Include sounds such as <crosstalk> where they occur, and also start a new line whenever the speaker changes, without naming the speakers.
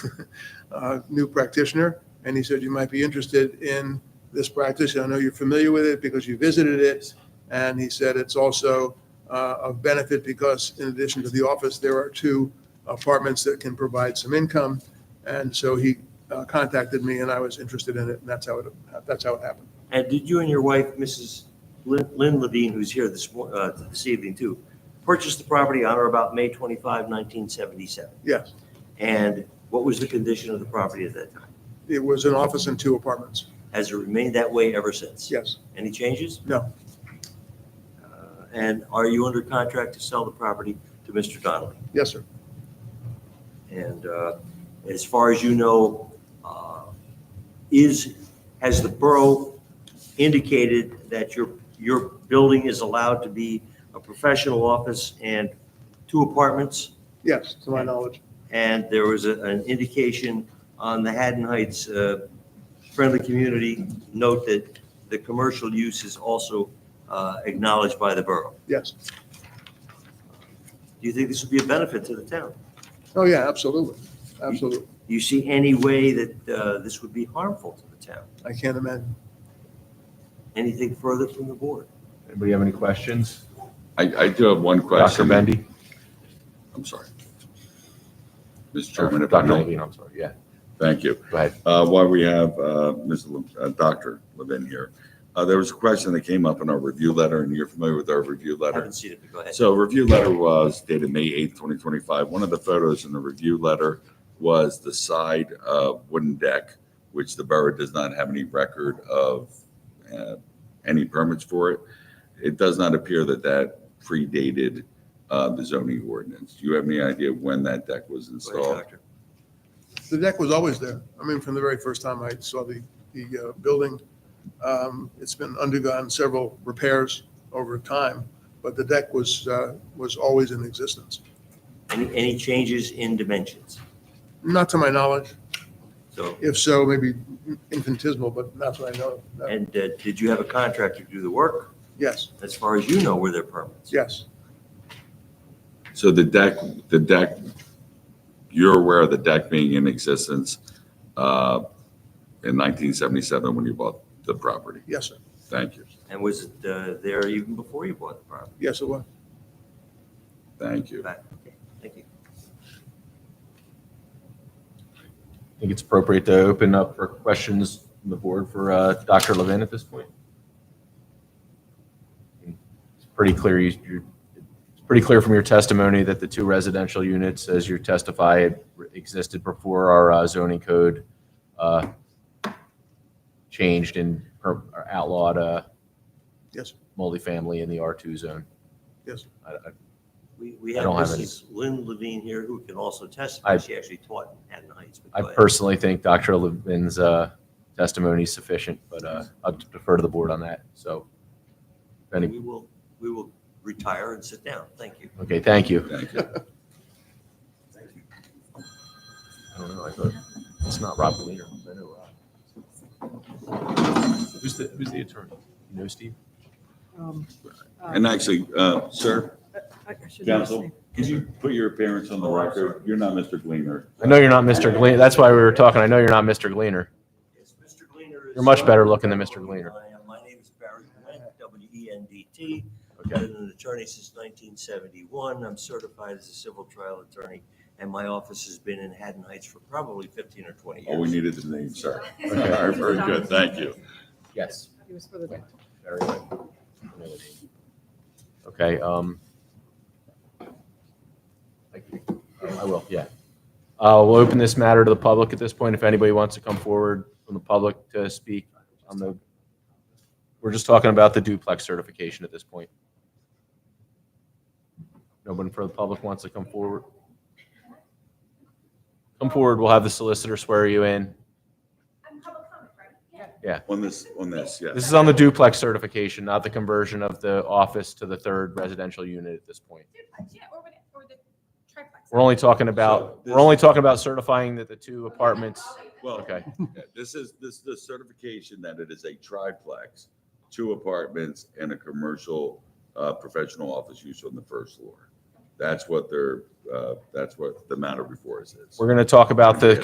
<laughs> uh, new practitioner, and he said you might be interested in this practice. I know you're familiar with it because you visited it, and he said it's also uh, of benefit because in addition to the office, there are two apartments that can provide some income, and so he uh, contacted me, and I was interested in it, and that's how it that's how it happened.
And did you and your wife, Mrs. Lynn Lynn Levine, who's here this, mor- uh, this evening too, purchase the property on or about May 25, 1977?
Yes,
And what was the condition of the property at that time?
it was an office and two apartments.
Has it remained that way ever since?
Yes,
Any changes?
No.
Uh, And are you under contract to sell the property to Mr. Donnelly?
yes, sir.
And uh, as far as you know, uh, is, has the borough indicated that your, your building is allowed to be a professional office and two apartments?
Yes, to my knowledge.
And there was a- an indication on the Haddon Heights uh, Friendly Community note that the commercial use is also uh, acknowledged by the borough.
Yes.
Do you think this would be a benefit to the town?
Oh, yeah, absolutely. Absolutely.
Do you see any way that uh, this would be harmful to the town?
I can't imagine.
Anything further from the board?
Anybody have any questions?
I, I do have one
Dr.
question.
Bendy?
I'm sorry. Mr.
Or
Chairman, if I
Dr.
may,
Levine, I'm sorry, yeah,
thank you.
go ahead.
Uh, While we have uh, Ms. Le- uh, Dr. Levin here, uh, there was a question that came up in our review letter, and you're familiar with our review
I
letter.
haven't seen it, but go ahead.
So review letter was dated May 8th, 2025. One of the photos in the review letter was the side uh, wooden deck, which the borough does not have any record of uh, any permits for it. It does not appear that that predated uh, the zoning ordinance. Do you have any idea when that deck was
Go ahead,
installed?
Doctor.
The deck was always there. I mean, from the very first time I saw the, the uh, building. Um, It's been undergone several repairs over time, but the deck was, uh, was always in existence.
Any, any changes in dimensions?
Not to my knowledge.
So,
If so, maybe infinitesimal, but not that I know. of. No.
and uh, did you have a contractor do the work?
Yes,
As far as you know, were there permits?
yes.
So the deck, the deck, you're aware of the deck being in existence uh, in 1977 when you bought the property?
Yes, sir.
Thank you.
And was it uh, there even before you bought the property?
Yes, it was.
Thank you.
Back- okay, Thank you.
I think it's appropriate to open up for questions from the board for uh, Dr. Levin at this point. It's pretty clear, you- you're, it's pretty clear from your testimony that the two residential units, as you testify, existed before our uh, zoning code uh, changed and per- or outlawed uh,
Yes,
multifamily in the R2 zone.
yes.
I- I-
We, we
I
have
don't have any.
Mrs. Lynn Levine here who can also testify.
I-
She actually taught in Haddon Heights. but
I
go ahead.
personally think Dr. Levin's uh, testimony is sufficient, but uh, I'll defer to the board on that. So, if any,
We will, we will retire and sit down. Thank you.
okay, thank you.
Thank you.
I don't know, I thought, it's not Rob Galena. I know Rob. Who's the, who's the attorney? You know, Steve?
Um, uh,
And actually, uh, sir,
I- I should know his
counsel,
name.
could you put your appearance on the record? You're not Mr. Gleaner.
I know you're not Mr. Gleaner, that's why we were talking, I know you're not Mr. Gleaner.
Yes, Mr. Gleaner is. uh,
You're much better looking than Mr. Gleaner.
I am. My name is Barry Wendt, E W-E-N-D-T.
Okay,
Been an attorney since 1971. I'm certified as a civil trial attorney, and my office has been in Haddon Heights for probably 15 or 20
Oh, we
years.
needed the name, sir. All
Okay.
right, very good, thank you.
yes.
He was for the
Very good. Okay, um. I- Um, I will, yeah. Uh, we'll open this matter to the public at this point. If anybody wants to come forward from the public to speak on the, we're just talking about the duplex certification at this point. Nobody from the public wants to come forward? Come forward, we'll have the solicitor swear you in.
I'm public comment, right? Yeah.
On this, on this,
This
yes.
is on the duplex certification, not the conversion of the office to the third residential unit at this point.
Duplex, yeah, or what- or the triplex.
We're only talking about, we're only talking about certifying that the two apartments,
Well,
okay,
yeah, this is, this is the certification that it is a triplex, two apartments and a commercial uh, professional office use on the first floor. That's what they're, uh, that's what the matter before us is.
we're gonna talk about the